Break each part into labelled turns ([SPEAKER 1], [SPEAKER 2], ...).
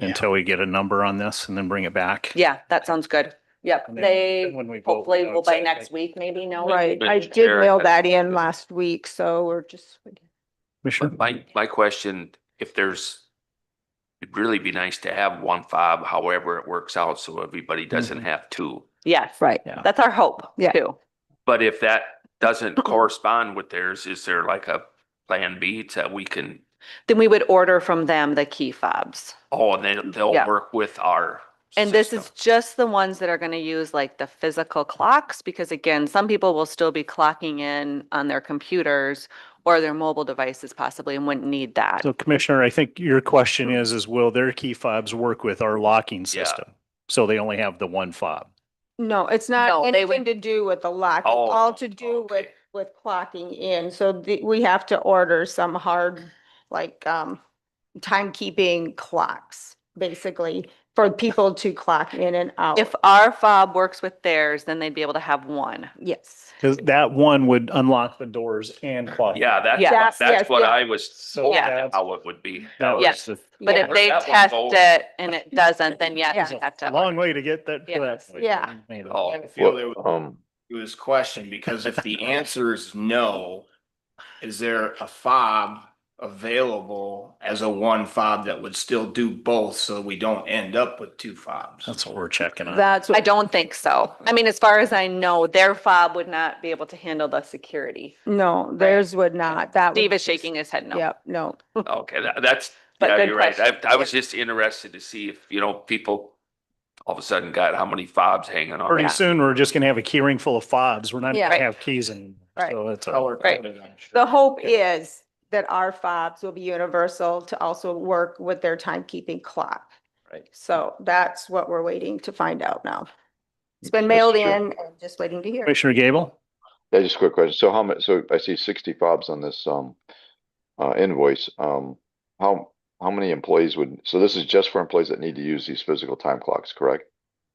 [SPEAKER 1] Yeah.
[SPEAKER 2] until we get a number on this and then bring it back.
[SPEAKER 3] Yeah, that sounds good. Yep,
[SPEAKER 2] And then- then
[SPEAKER 3] they
[SPEAKER 2] when we vote,
[SPEAKER 3] hopefully
[SPEAKER 2] I
[SPEAKER 3] will
[SPEAKER 2] would
[SPEAKER 3] by
[SPEAKER 2] say,
[SPEAKER 3] next
[SPEAKER 2] like,
[SPEAKER 3] week, maybe, no?
[SPEAKER 4] Right, I
[SPEAKER 5] Mr.
[SPEAKER 4] did
[SPEAKER 5] Chair,
[SPEAKER 4] mail
[SPEAKER 5] I-
[SPEAKER 4] that in last week, so we're just,
[SPEAKER 2] Commissioner?
[SPEAKER 5] My, my question, if there's, it'd really be nice to have one fob, however it works out, so everybody
[SPEAKER 3] Mm-hmm.
[SPEAKER 5] doesn't have two.
[SPEAKER 3] Yes,
[SPEAKER 4] right.
[SPEAKER 2] Yeah.
[SPEAKER 3] that's our hope
[SPEAKER 4] Yeah.
[SPEAKER 3] too.
[SPEAKER 5] But if that doesn't correspond with theirs, is there like a plan B that we can,
[SPEAKER 3] Then we would order from them the key fobs.
[SPEAKER 5] oh, and then they'll
[SPEAKER 3] Yeah.
[SPEAKER 5] work with our.
[SPEAKER 3] And this
[SPEAKER 5] system.
[SPEAKER 3] is just the ones that are going to use like the physical clocks, because again, some people will still be clocking in on their computers or their mobile devices possibly and wouldn't need that.
[SPEAKER 2] So Commissioner, I think your question is, is will their key fobs work with our locking
[SPEAKER 5] Yeah.
[SPEAKER 2] system? So they only have the one fob.
[SPEAKER 4] No, it's
[SPEAKER 3] No,
[SPEAKER 4] not
[SPEAKER 3] they would-
[SPEAKER 4] anything to do with the lock, it's
[SPEAKER 5] Oh,
[SPEAKER 4] all to do with,
[SPEAKER 5] okay.
[SPEAKER 4] with clocking in. So the, we have to order some hard, like, um, timekeeping clocks, basically, for people to clock in and out.
[SPEAKER 3] If our fob works with theirs, then they'd be able to have one.
[SPEAKER 4] Yes.
[SPEAKER 2] Cause that one would unlock the doors and clock.
[SPEAKER 5] Yeah,
[SPEAKER 3] Yeah.
[SPEAKER 5] that's,
[SPEAKER 4] Yes,
[SPEAKER 5] that's
[SPEAKER 4] yes,
[SPEAKER 5] what
[SPEAKER 4] yeah.
[SPEAKER 5] I was,
[SPEAKER 2] So
[SPEAKER 3] Yeah.
[SPEAKER 2] that's-
[SPEAKER 5] how it would be.
[SPEAKER 2] that
[SPEAKER 3] Yeah.
[SPEAKER 2] was the
[SPEAKER 3] But if
[SPEAKER 4] Yeah.
[SPEAKER 3] they
[SPEAKER 5] That one
[SPEAKER 3] test
[SPEAKER 5] goes-
[SPEAKER 3] it and it doesn't, then
[SPEAKER 4] Yeah.
[SPEAKER 3] yes, you have to.
[SPEAKER 2] long way to get that. to that
[SPEAKER 3] Yes.
[SPEAKER 2] point.
[SPEAKER 4] Yeah.
[SPEAKER 2] Made it.
[SPEAKER 5] Oh,
[SPEAKER 6] I feel there
[SPEAKER 7] Well, Um,
[SPEAKER 6] to his question, because if the answer is no, is there a fob available as a one fob that would still do both so we don't end up with two fobs?
[SPEAKER 2] That's what we're checking on.
[SPEAKER 4] That's,
[SPEAKER 3] I
[SPEAKER 4] what-
[SPEAKER 3] don't think so. I mean, as far as I know, their fob would not be able to handle the security.
[SPEAKER 4] no, theirs would not, that. would
[SPEAKER 3] Steve is
[SPEAKER 4] just-
[SPEAKER 3] shaking his head no.
[SPEAKER 4] Yep, no.
[SPEAKER 5] Okay, that, that's,
[SPEAKER 3] But
[SPEAKER 5] yeah,
[SPEAKER 3] good
[SPEAKER 5] you're right. I,
[SPEAKER 3] question.
[SPEAKER 5] I was just interested to see if, you know, people all of a sudden got how many fobs hanging on.
[SPEAKER 2] Pretty
[SPEAKER 5] their-
[SPEAKER 2] soon, we're just gonna have a key ring full of fobs. We're not
[SPEAKER 4] Yeah.
[SPEAKER 2] gonna have keys in.
[SPEAKER 4] Right.
[SPEAKER 2] So it's a,
[SPEAKER 6] Color
[SPEAKER 3] Right.
[SPEAKER 6] coded, I'm sure.
[SPEAKER 4] The hope is that our fobs will be universal to also work with their timekeeping clock.
[SPEAKER 6] Right.
[SPEAKER 4] So that's what we're waiting to find out now. It's been mailed in and just waiting to hear.
[SPEAKER 2] Commissioner Gable?
[SPEAKER 7] yeah, just a quick question. So how much, so I see sixty fobs on this, um, uh, invoice. Um, how, how many employees would, so this is just for employees that need to use these physical time clocks, correct?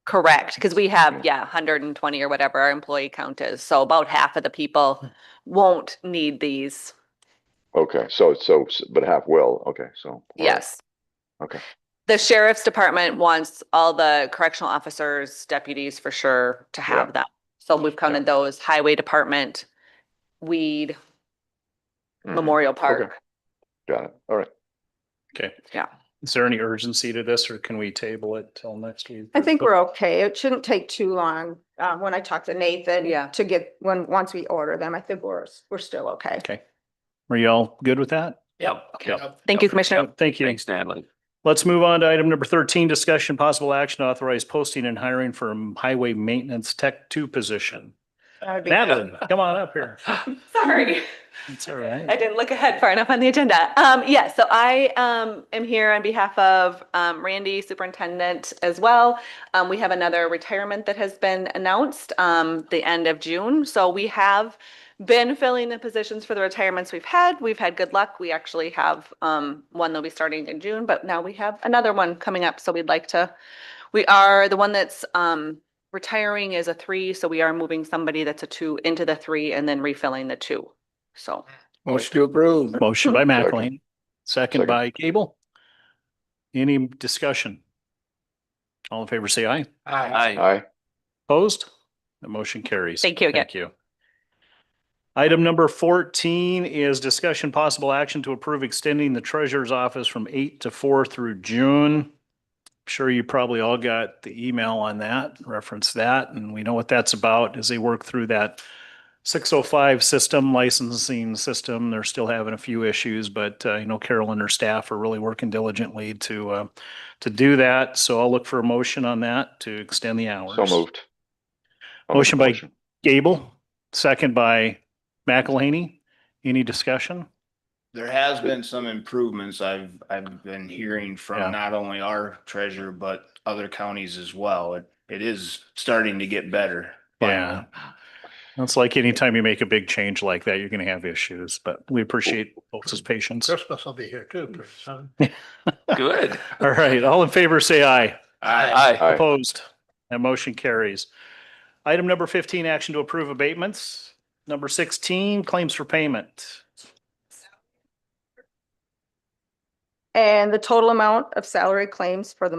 [SPEAKER 3] Correct, because we have,
[SPEAKER 7] Okay.
[SPEAKER 3] yeah, hundred and twenty or whatever our employee count is, so about half of the people won't need these,
[SPEAKER 7] Okay, so, so, but half will, okay, so. all right.
[SPEAKER 3] yes.
[SPEAKER 7] Okay.
[SPEAKER 3] The sheriff's department wants all the correctional officers, deputies for sure to have them, so we've counted those, highway department, weed,
[SPEAKER 7] Mhm,
[SPEAKER 3] Memorial Park.
[SPEAKER 7] Got it, all right.
[SPEAKER 2] Okay.
[SPEAKER 3] Yeah.
[SPEAKER 2] Is there any urgency to this or can we table it till next week?
[SPEAKER 4] I think we're okay. It shouldn't take too long. Um, when I talk to Nathan.
[SPEAKER 3] Yeah.
[SPEAKER 4] To get, when, once we order them, I think we're, we're still okay.
[SPEAKER 2] Okay. Are y'all good with that?
[SPEAKER 5] Yeah.
[SPEAKER 2] Yeah.
[SPEAKER 3] Thank you, Commissioner.
[SPEAKER 2] Thank you.
[SPEAKER 5] Thanks, Natalie.
[SPEAKER 2] Let's move on to item number thirteen, discussion possible action to authorize posting and hiring for a highway maintenance tech two position.
[SPEAKER 4] That would be-
[SPEAKER 2] Madeline, come on up here.
[SPEAKER 3] Sorry.
[SPEAKER 2] It's all right.
[SPEAKER 3] I didn't look ahead far enough on the agenda. Um, yeah, so I, um, am here on behalf of, um, Randy Superintendent as well. Um, we have another retirement that has been announced, um, the end of June. So we have been filling the positions for the retirements we've had. We've had good luck. We actually have, um, one that'll be starting in June, but now we have another one coming up. So we'd like to, we are, the one that's, um, retiring is a three, so we are moving somebody that's a two into the three and then refilling the two. So.
[SPEAKER 6] Motion to approve.
[SPEAKER 2] Motion by
[SPEAKER 7] Second.
[SPEAKER 2] McElhaney, second
[SPEAKER 7] Second.
[SPEAKER 2] by Gable. Any discussion? All in favor, say aye.
[SPEAKER 5] Aye.
[SPEAKER 7] Aye,
[SPEAKER 2] Opposed? The motion carries.
[SPEAKER 3] Thank you again.
[SPEAKER 2] Thank you. Item number fourteen is discussion possible action to approve extending the treasurer's office from eight to four through June. I'm Sure you probably all got the email on that, reference that, and we know what that's about as they work through that six oh five system licensing system. They're still having a few issues, but uh, you know, Carol and her staff are really working diligently to uh, to do that. So I'll look for a motion on that to extend the hours.
[SPEAKER 7] so moved. I'll make the
[SPEAKER 2] Motion by- Gable, second by McElhaney. Any discussion?
[SPEAKER 6] There has been some improvements I've, I've been hearing
[SPEAKER 2] Yeah.
[SPEAKER 6] from not only our treasurer, but other counties as well. It, it is starting to get better.
[SPEAKER 2] Yeah. It's like anytime you make a big change like that, you're going to have issues, but we appreciate folks' patience.
[SPEAKER 8] Christmas will be here too, pretty soon.
[SPEAKER 5] Good.
[SPEAKER 2] All right, all in favor, say aye.
[SPEAKER 6] Aye.
[SPEAKER 5] Aye.
[SPEAKER 7] Aye.
[SPEAKER 2] Opposed? That motion carries. Item number fifteen, action to approve abatements. Number sixteen, claims for payment.
[SPEAKER 4] And the total amount of salary claims for the